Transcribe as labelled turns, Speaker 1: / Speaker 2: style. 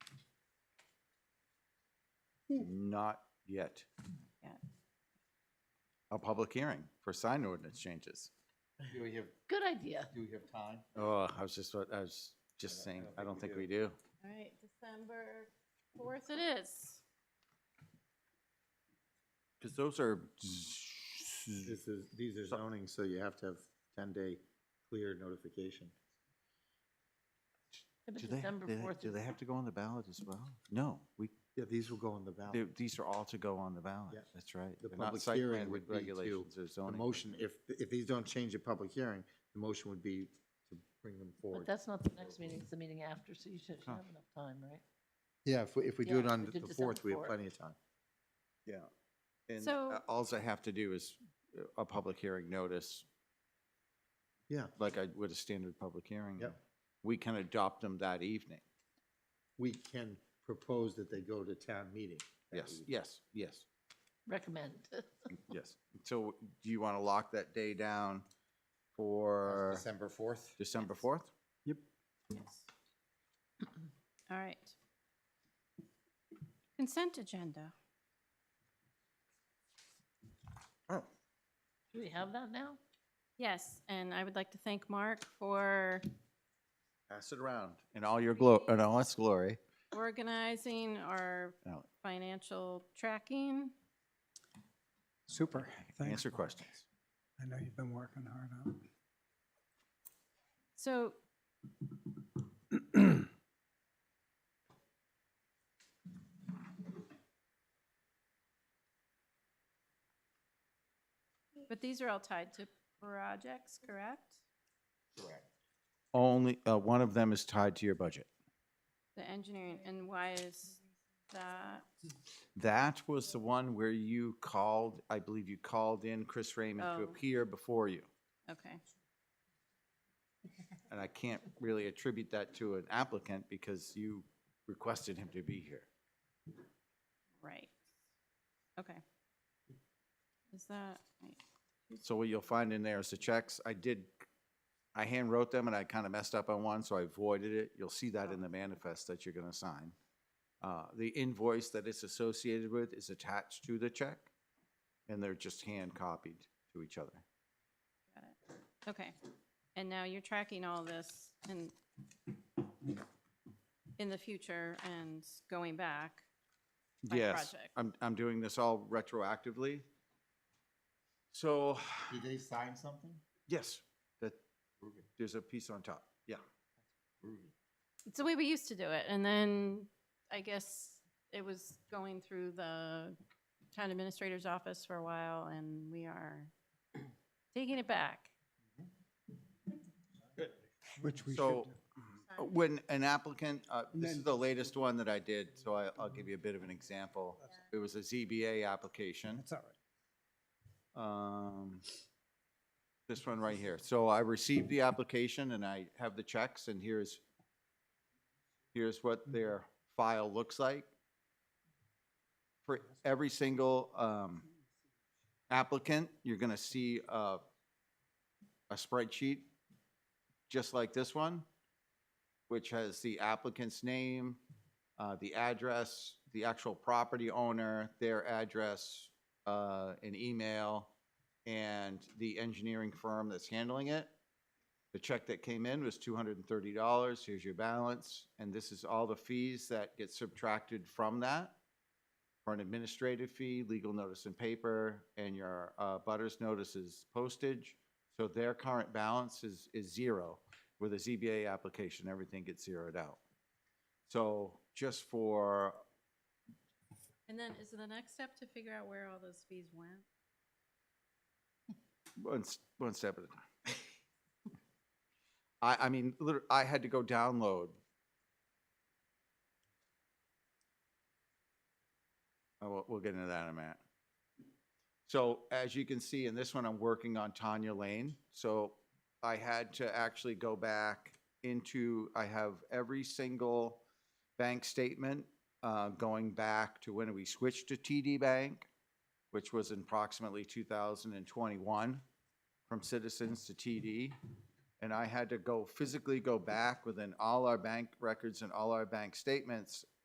Speaker 1: Not yet.
Speaker 2: Yet.
Speaker 1: A public hearing for sign ordinance changes.
Speaker 3: Do we have,
Speaker 4: Good idea.
Speaker 3: do we have time?
Speaker 1: Oh, I was just, I was just
Speaker 3: I don't- I
Speaker 1: saying,
Speaker 3: don't
Speaker 1: I
Speaker 3: think
Speaker 1: don't
Speaker 3: we
Speaker 1: think
Speaker 3: do.
Speaker 1: we do.
Speaker 2: All right, December fourth it is.
Speaker 1: Because those are,
Speaker 3: This is, these are zoning, so you have to have ten-day clear notification.
Speaker 4: If it's
Speaker 1: do they,
Speaker 4: December
Speaker 1: do they-
Speaker 4: 4th,
Speaker 1: do they have to go on the ballot as well? No, we,
Speaker 3: Yeah, these will go in the
Speaker 1: they-
Speaker 3: ballot.
Speaker 1: these are all to go on the ballot.
Speaker 3: Yeah.
Speaker 1: That's right.
Speaker 3: The
Speaker 1: They're not
Speaker 3: public
Speaker 1: site
Speaker 3: hearing
Speaker 1: plan
Speaker 3: would be to-
Speaker 1: regulations or
Speaker 3: The
Speaker 1: zoning.
Speaker 3: motion, if, if these don't change the public hearing, the motion would be to bring them
Speaker 4: but
Speaker 3: forward.
Speaker 4: that's not the next meeting, it's the meeting after, so you should should have enough time, right?
Speaker 3: Yeah, if, we- if we do
Speaker 4: Yeah,
Speaker 3: it on
Speaker 4: we did
Speaker 3: the
Speaker 4: December
Speaker 3: fourth, we have
Speaker 4: 4th.
Speaker 3: plenty of time.
Speaker 1: Yeah. And
Speaker 2: So-
Speaker 1: alls I have to do is uh, a public hearing notice,
Speaker 3: Yeah,
Speaker 1: like I would a standard public hearing.
Speaker 3: Yep.
Speaker 1: We can adopt them that evening.
Speaker 3: we can propose that they go to town meeting. that
Speaker 1: Yes,
Speaker 3: evening.
Speaker 1: yes, yes,
Speaker 4: Recommend.
Speaker 1: yes. So do you want to lock that day down for
Speaker 3: December fourth?
Speaker 1: December 4th?
Speaker 2: Yes. All right. Consent agenda.
Speaker 1: Oh,
Speaker 4: Do we have that now?
Speaker 2: Yes, and I would like to thank Mark for
Speaker 1: pass it around. In all your glory, in all its glory.
Speaker 2: organizing our
Speaker 1: Now,
Speaker 2: financial tracking.
Speaker 5: Super, thanks.
Speaker 1: Answer questions.
Speaker 5: I know you've been working hard on it.
Speaker 2: So But these are all tied to projects, correct?
Speaker 3: Correct.
Speaker 1: Only, uh, one of them is tied to your budget.
Speaker 2: The engineering, and why is that?
Speaker 1: That was the one where you called, I believe you called in Chris Raymond to
Speaker 2: Oh.
Speaker 1: appear before you.
Speaker 2: Okay,
Speaker 1: And I can't really attribute that to an applicant because you requested him to be here.
Speaker 2: right. Okay. Is that, right,
Speaker 1: So what you'll find in there is the checks. I did, I hand wrote them and I kind of messed up on one, so I voided it. You'll see that in the manifest that you're gonna sign. Uh, the invoice that it's associated with is attached to the check, and they're just hand copied to each other.
Speaker 2: got it. Okay. And now you're tracking all this in, in the future and going back. By
Speaker 1: Yes,
Speaker 2: project.
Speaker 1: I'm, I'm doing this all retroactively. So,
Speaker 3: Did they sign something?
Speaker 1: yes, that, there's a piece on top, yeah.
Speaker 2: It's the way we used to do it, and then I guess it was going through the town administrator's office for a while, and we are taking it back.
Speaker 5: which we should
Speaker 1: So,
Speaker 5: do.
Speaker 1: uh, when an applicant, uh, this is the latest one that I did, so I, I'll give you a bit of an example. It was a ZBA application.
Speaker 5: That's all right.
Speaker 1: um, This one right here. So I received the application and I have the checks and here's, here's what their file looks like. For every single um, applicant, you're going to see a a spreadsheet just like this one, which has the applicant's name, uh, the address, the actual property owner, their address, uh, an email, and the engineering firm that's handling it. The check that came in was two hundred and thirty dollars, here's your balance, and this is all the fees that get subtracted from that for an administrative fee, legal notice and paper, and your, uh, butters notices postage. So their current balance is, is zero. With a ZBA application, everything gets zeroed out. So just for,
Speaker 2: And then is the next step to figure out where all those fees went?
Speaker 1: One, s- one step at a time. I, I mean, literally, I had to go download. Oh, we'll, we'll get into that in a minute. So as you can see in this one, I'm working on Tanya Lane. So I had to actually go back into, I have every single bank statement, uh, going back to when we switched to TD Bank which was in approximately 2021 from Citizens to TD. And I had to go physically go back within all our bank records and all our bank statements